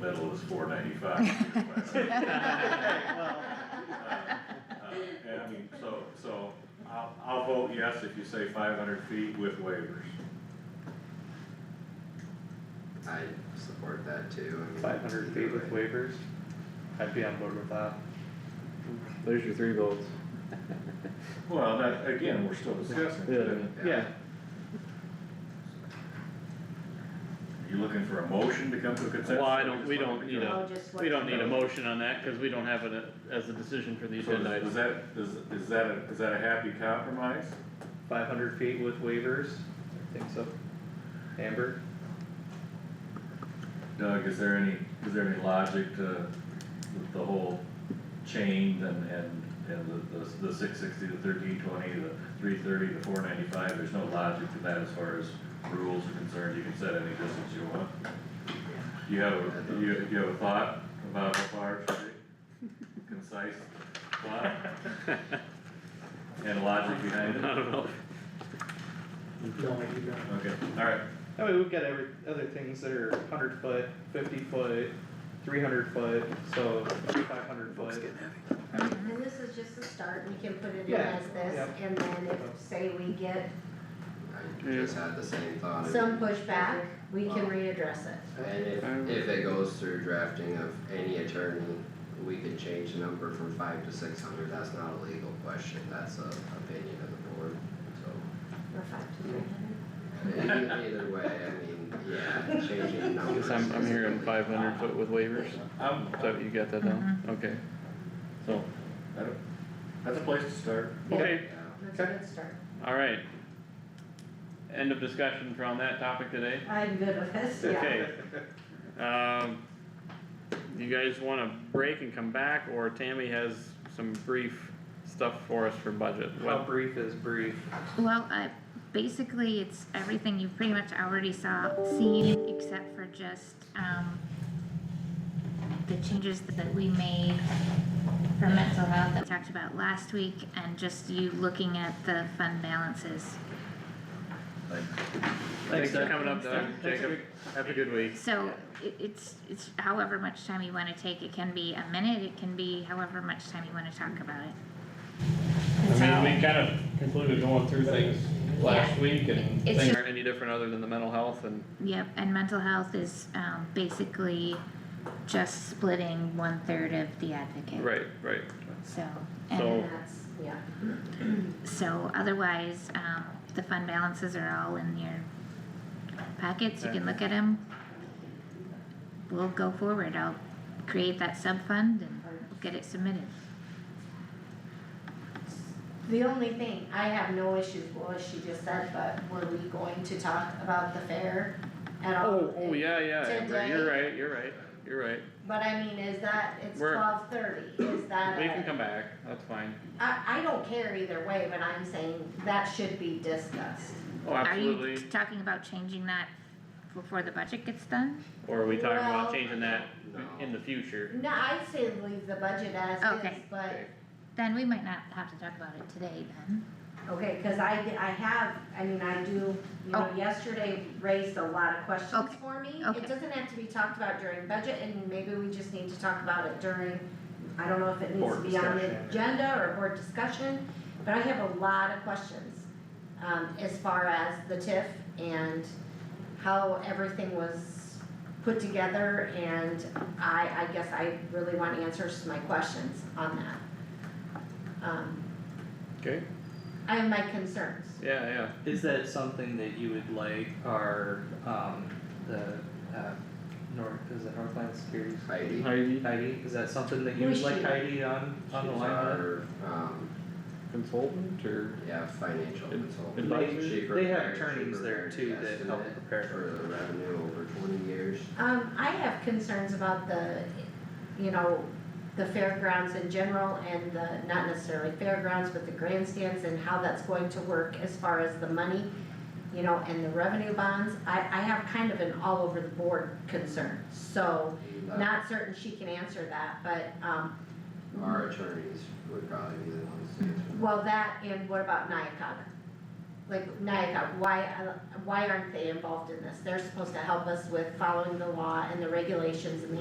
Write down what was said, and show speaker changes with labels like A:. A: middle is four Uh, ninety-five. And I mean, so, so I'll, I'll vote yes if you say five hundred feet with waivers.
B: I support that too, I mean.
C: Five hundred feet with waivers, I'd be on board with that.
D: There's your three votes.
A: Well, that, again, we're still discussing.
D: Yeah.
C: Yeah,
A: Are you looking for a motion to come to a consensus?
E: Well, I don't- we don't need a-
F: Oh, just what-
E: We don't need a motion on that, cause we don't have it as a decision for the
A: So
E: agenda
A: is- is
E: item.
A: that, is, is that a, is that a happy compromise?
C: five hundred feet with waivers, I think so. Amber,
A: Doug, is there any, is there any logic to the- the whole chain and, and, and the, the, the six sixty, the thirteen twenty, the three thirty, the four ninety-five? There's no logic to that as far as rules are concerned, you can set any distance you want. Do you have, a- do you, do you have a thought about how far it should be? Concise thought? And logic
E: I
A: behind
E: don't
A: it?
E: know,
A: Okay, alright,
C: I mean, we've got every, other things that are hundred foot, fifty foot, three hundred foot, so five hundred foot.
F: And Mm-hmm, this is just a start, we can put it in
C: Yeah,
F: as this,
C: yeah.
F: and then if, say, we get
B: I just had the same thought.
F: some pushback, we can
B: Well.
F: readdress it.
B: And if, if it goes through drafting of any attorney, we could change the number from five to six hundred, that's not a legal question, that's a opinion of the board, so.
F: Or five to three hundred.
B: e- Either way, I mean, yeah, changing
D: I
B: numbers.
D: guess I'm, I'm hearing
B: specifically.
D: five hundred foot with waivers,
A: I'm,
D: so you got that down,
E: Mm-hmm.
D: okay.
A: Um, so, I don't, that's a place to start.
E: okay,
B: Yeah,
F: That's a good start.
E: alright. End of discussion around that topic today,
F: I'm good with this, yeah.
E: okay. Um, you guys wanna break and come back, or Tammy has some brief stuff for us for budget?
C: How
E: What-
C: brief is brief?
G: Well, I, basically, it's everything you pretty much already saw, seen, except for just, um, the changes that we made for mental health that we talked about last week, and just you looking at the fund balances.
A: Like,
E: Thanks for coming up, Doug, Jacob, have a good week.
G: So, it, it's, it's however much time you wanna take, it can be a minute, it can be however much time you wanna talk about it.
E: I mean, we kind of concluded going through things last week and
G: It's
D: Things
G: just,
D: aren't any different other than the mental health and
G: yep, and mental health is, um, basically just splitting one-third of the advocate.
D: Right, right.
E: So-
G: So, and
F: That's, yeah.
G: so otherwise, um, the fund balances are all in your packets, you can look at them. We'll go forward, I'll create that sub-fund and we'll get it submitted.
F: The only thing, I have no issues with what she just said, but were we going to talk about the fair at all?
D: Oh, oh, yeah, yeah, Amber, you're right, you're right, you're right.
F: But I mean, is that, it's
D: We're-
F: twelve thirty, is that
D: We
F: a-
D: can come back, that's fine.
F: I, I don't care either way, but I'm saying that should be discussed.
D: Oh,
G: Are you
D: absolutely.
G: t- talking about changing that before the budget gets done?
E: Or are we talking about
F: Well-
E: changing that
B: No.
E: in the future?
F: No, I'd say leave the budget as is,
G: Okay.
F: but,
G: Then we might not have to talk about it today then.
F: okay, cause I, I have, I mean, I do, you know,
G: Oh.
F: yesterday raised a lot of questions
G: Okay.
F: for me.
G: Okay.
F: It doesn't have to be talked about during budget, and maybe we just need to talk about it during, I don't know if it needs to
C: Board
F: be on the
C: discussion.
F: agenda or board discussion, but I have a lot of questions, um, as far as the TIF and how everything was put together, and I, I guess I really want answers to my questions on that. Um,
D: Okay,
F: I have my concerns.
D: yeah, yeah.
C: Is that something that you would like our, um, the, uh, North, is it Northland Securities?
B: Heidi,
D: Heidi,
C: Heidi, is that something that you
F: Who's
C: would like
F: she?
C: Heidi on, on the
B: she's
C: line?
B: our, um,
D: consultant or?
B: yeah, financial
D: Ad-
B: consultant.
D: advisor?
B: She
C: They have
B: prepared- she
C: attorneys there
B: prepared
C: too
B: the
C: that help
B: estimate
C: prepare.
B: For the revenue over twenty years.
F: Um, I have concerns about the, you know, the fairgrounds in general and the, not necessarily fairgrounds, but the grandstands and how that's going to work as far as the money, you know, and the revenue bonds. I, I have kind of an all over the board concern, so not certain she can answer that, but, um,
B: Our attorneys would probably be the ones to answer.
F: well, that and what about Nyakog? Like Nyakog, why, uh, why aren't they involved in this? They're supposed to help us with following the law and the regulations and the